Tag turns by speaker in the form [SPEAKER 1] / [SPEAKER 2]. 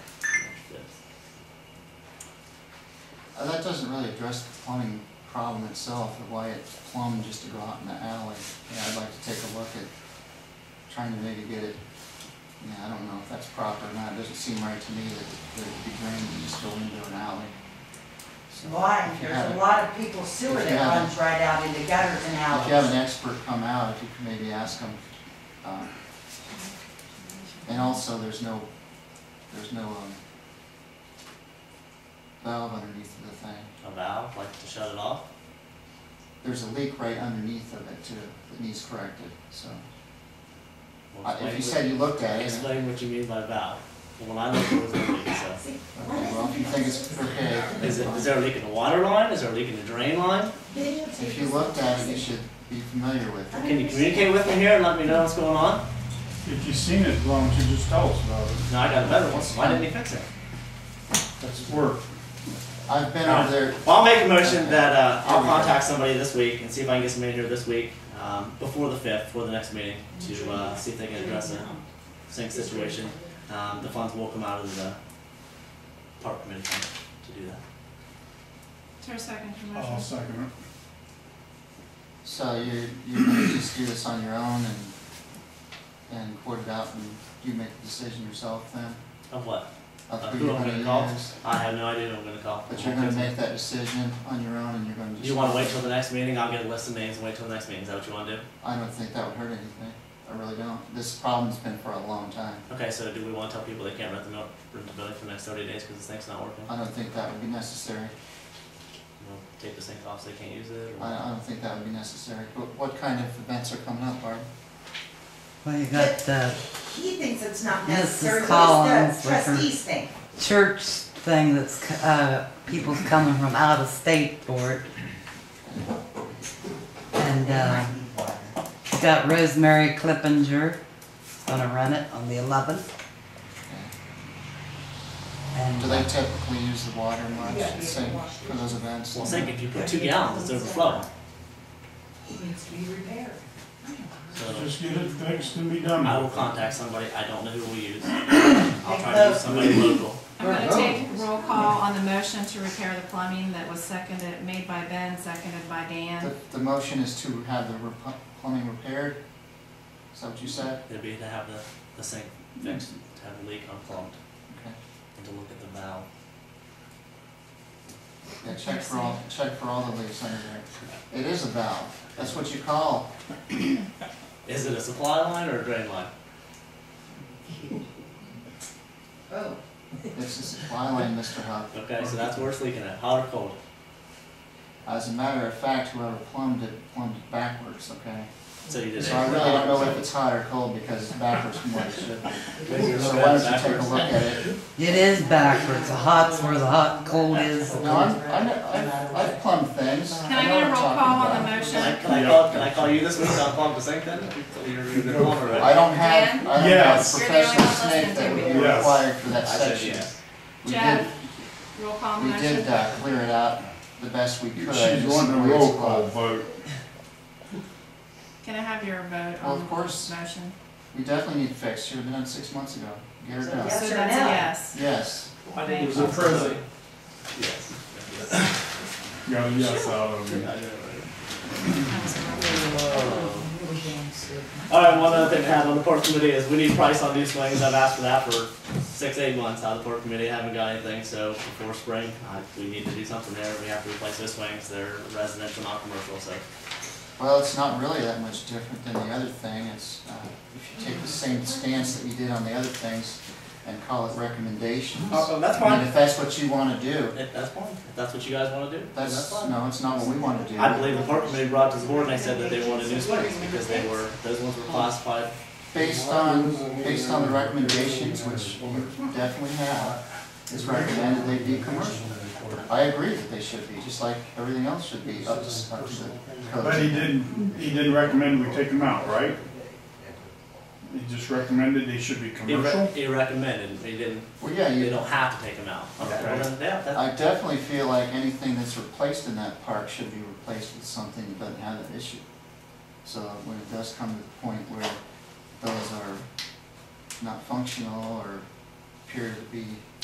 [SPEAKER 1] Uh, that doesn't really address the plumbing problem itself, of why it plumbed just to go out in the alley. Yeah, I'd like to take a look at trying to maybe get it, yeah, I don't know if that's proper or not, it doesn't seem right to me that, that it'd be drained and just go into an alley. So,
[SPEAKER 2] Why?
[SPEAKER 1] if you have
[SPEAKER 2] There's
[SPEAKER 1] it-
[SPEAKER 2] a lot of people's sewer
[SPEAKER 1] If you
[SPEAKER 2] that
[SPEAKER 1] have
[SPEAKER 2] runs right out into gutters
[SPEAKER 1] If
[SPEAKER 2] and
[SPEAKER 1] you have an
[SPEAKER 2] alleys.
[SPEAKER 1] expert come out, if you could maybe ask them, uh, and also, there's no, there's no, um, valve underneath of the thing.
[SPEAKER 3] A valve, like to shut it off?
[SPEAKER 1] There's a leak right underneath of it too, that needs corrected, so.
[SPEAKER 3] Well,
[SPEAKER 1] Uh, If
[SPEAKER 3] explain
[SPEAKER 1] you
[SPEAKER 3] what-
[SPEAKER 1] said you looked at it,
[SPEAKER 3] Explain what you mean by valve. Well, When I look, it was a leak, so.
[SPEAKER 1] okay, well, if you think it's okay.
[SPEAKER 3] Is it, is
[SPEAKER 1] fine.
[SPEAKER 3] there a leak in the water line? Is there a leak in the drain line?
[SPEAKER 1] If you looked at it, you should be familiar with it.
[SPEAKER 3] Can you communicate with me here and let me know what's going on?
[SPEAKER 4] If you've seen it, why don't you just tell us about it?
[SPEAKER 3] No, I got a better one. Why didn't he fix it?
[SPEAKER 4] That's work.
[SPEAKER 1] I've been over there,
[SPEAKER 3] Well, I'll make a motion that, uh, I'll
[SPEAKER 1] Here we go.
[SPEAKER 3] contact somebody this week and see if I can get somebody here this week, um, before the fifth, before the next meeting, to, uh, see if they can address the sink situation. Um, the funds will come out of the park committee fund to do that.
[SPEAKER 5] Is there a second to the
[SPEAKER 4] I'll
[SPEAKER 5] motion?
[SPEAKER 4] second
[SPEAKER 1] so you, you're gonna just do this on your own and, and report it out and you make the decision yourself then?
[SPEAKER 3] Of what?
[SPEAKER 1] Of
[SPEAKER 3] Uh,
[SPEAKER 1] who
[SPEAKER 3] who
[SPEAKER 1] you're
[SPEAKER 3] I'm
[SPEAKER 1] gonna
[SPEAKER 3] gonna call?
[SPEAKER 1] use?
[SPEAKER 3] I have no idea who I'm gonna call.
[SPEAKER 1] But you're gonna make that decision on your own and you're gonna just.
[SPEAKER 3] Do you wanna wait till the next meeting? I'll get a list of names and wait till the next meeting. Is that what you wanna do?
[SPEAKER 1] I don't think that would hurt anything, I really don't. This problem's been for a long time.
[SPEAKER 3] Okay, so do we wanna tell people they can't rent the mil- rent the building for the next thirty days because the sink's not working?
[SPEAKER 1] I don't think that would be necessary.
[SPEAKER 3] We'll take the sink off so they can't use it or?
[SPEAKER 1] I, I don't think that would be necessary. But what kind of events are coming up, Barb?
[SPEAKER 6] Well, you got the
[SPEAKER 2] He thinks it's not
[SPEAKER 6] This is
[SPEAKER 2] necessary, what
[SPEAKER 6] Collins
[SPEAKER 2] does the
[SPEAKER 6] with her-
[SPEAKER 2] trustees think?
[SPEAKER 6] church thing that's, c- uh, people's coming from out of state for it. And, uh, you got Rosemary Clippinger, gonna run it on the eleventh.
[SPEAKER 1] Do
[SPEAKER 6] And,
[SPEAKER 1] they typically use the water much,
[SPEAKER 2] Yeah.
[SPEAKER 1] same for those events?
[SPEAKER 3] Well, sink, if you put two gallons, it's overflowing.
[SPEAKER 2] It needs to be repaired.
[SPEAKER 4] it.
[SPEAKER 3] So
[SPEAKER 4] Just get it fixed and be done
[SPEAKER 3] I will
[SPEAKER 4] with it.
[SPEAKER 3] contact somebody. I don't know who we'll use. I'll try to use somebody local.
[SPEAKER 5] I'm
[SPEAKER 1] Oh.
[SPEAKER 5] gonna take roll call on the motion to repair the plumbing that was seconded, made by Ben, seconded by Dan.
[SPEAKER 1] The, the motion is to have the rep- plumbing repaired? Is that what you said?
[SPEAKER 3] It'd be to have the, the sink fixed, to have the leak unplugged,
[SPEAKER 1] Okay.
[SPEAKER 3] and to look at the valve.
[SPEAKER 1] Yeah, check for all, check for all the leaks under there. It is a valve. That's what you call.
[SPEAKER 3] Is it a supply line or a drain line?
[SPEAKER 2] Oh,
[SPEAKER 1] It's a supply line, Mr. Huff.
[SPEAKER 3] Okay, so that's where it's leaking at, hot or cold?
[SPEAKER 1] As a matter of fact, whoever plumbed it, plumbed it backwards, okay?
[SPEAKER 3] So you did it.
[SPEAKER 1] So I really don't know if it's hot or cold because it's backwards from what it should be.
[SPEAKER 3] Maybe you're
[SPEAKER 1] So
[SPEAKER 3] looking
[SPEAKER 1] why
[SPEAKER 3] at
[SPEAKER 1] don't
[SPEAKER 3] it
[SPEAKER 1] you take a
[SPEAKER 3] backwards.
[SPEAKER 1] look at it?
[SPEAKER 6] it is backwards, the hot's where the hot, cold is.
[SPEAKER 1] No, I'm, I'm, I've- I've plumbed things.
[SPEAKER 5] Can I
[SPEAKER 1] know
[SPEAKER 5] get a
[SPEAKER 1] what
[SPEAKER 5] roll
[SPEAKER 1] I'm
[SPEAKER 5] call
[SPEAKER 1] talking
[SPEAKER 5] on the
[SPEAKER 1] about.
[SPEAKER 5] motion?
[SPEAKER 3] Can I, can I call, can I call you this week to unplug the sink then? You're, you're on already.
[SPEAKER 1] I don't have,
[SPEAKER 5] Dan?
[SPEAKER 1] I don't have a
[SPEAKER 4] Yes.
[SPEAKER 5] You're the only
[SPEAKER 1] professional
[SPEAKER 5] one
[SPEAKER 1] snake that
[SPEAKER 5] listening
[SPEAKER 1] would be
[SPEAKER 5] to
[SPEAKER 4] me. Yes.
[SPEAKER 1] required for that
[SPEAKER 3] I said
[SPEAKER 1] section.
[SPEAKER 3] yes.
[SPEAKER 1] We
[SPEAKER 5] Jeff,
[SPEAKER 1] did,
[SPEAKER 5] Roll call on
[SPEAKER 1] we
[SPEAKER 5] the
[SPEAKER 1] did,
[SPEAKER 5] motion.
[SPEAKER 1] uh, clear it out the best we could.
[SPEAKER 4] She's wanting a roll call vote.
[SPEAKER 5] Can I have your vote
[SPEAKER 1] Well,
[SPEAKER 5] on
[SPEAKER 1] of
[SPEAKER 5] the
[SPEAKER 1] course,
[SPEAKER 5] motion?
[SPEAKER 1] we definitely need fixed, should have been done six months ago. Get her done.
[SPEAKER 2] Yes
[SPEAKER 5] So
[SPEAKER 2] or
[SPEAKER 5] that's a
[SPEAKER 2] no?
[SPEAKER 5] yes.
[SPEAKER 1] Yes,
[SPEAKER 7] I think it was
[SPEAKER 5] Okay.
[SPEAKER 7] a present.
[SPEAKER 3] Yes.
[SPEAKER 4] Got a yes out of it.
[SPEAKER 5] That was a roll call.
[SPEAKER 3] Alright, Oh. one other thing to have on the park committee is we need price on new swings. I've asked for that for six, eight months out of the park committee. I haven't got anything, so before spring, I, we need to do something there. We have to replace those swings. They're residential, not commercial, so.
[SPEAKER 1] well, it's not really that much different than the other thing, it's, uh, if you take the same stance that you did on the other things and call it recommendations.
[SPEAKER 4] Uh,
[SPEAKER 3] Oh, that's
[SPEAKER 1] I mean,
[SPEAKER 3] fine.
[SPEAKER 1] if that's what you wanna do,
[SPEAKER 3] If that's fine. If that's what you guys wanna do, then that's
[SPEAKER 1] that's,
[SPEAKER 3] fine.
[SPEAKER 1] no, it's not what we wanna do.
[SPEAKER 3] I believe the park committee brought to the board and they said that they wanted new swings because they were, those ones were classified
[SPEAKER 1] Based on, based on the recommendations, which you definitely have, it's recommended they be commercial. I agree that they should be, just like everything else should be up to, up to the
[SPEAKER 4] But he
[SPEAKER 1] code.
[SPEAKER 4] didn't, he didn't recommend we take them out, right? He just recommended they should be
[SPEAKER 3] He,
[SPEAKER 4] commercial?
[SPEAKER 3] re- he recommended, he didn't,
[SPEAKER 1] Well, yeah,
[SPEAKER 3] they
[SPEAKER 1] you,
[SPEAKER 3] don't have to take them out.
[SPEAKER 4] Okay.
[SPEAKER 3] Well, then, yeah, that-
[SPEAKER 1] I definitely feel like anything that's replaced in that park should be replaced with something that doesn't have that issue. So when it does come to the point where those are not functional or appear to be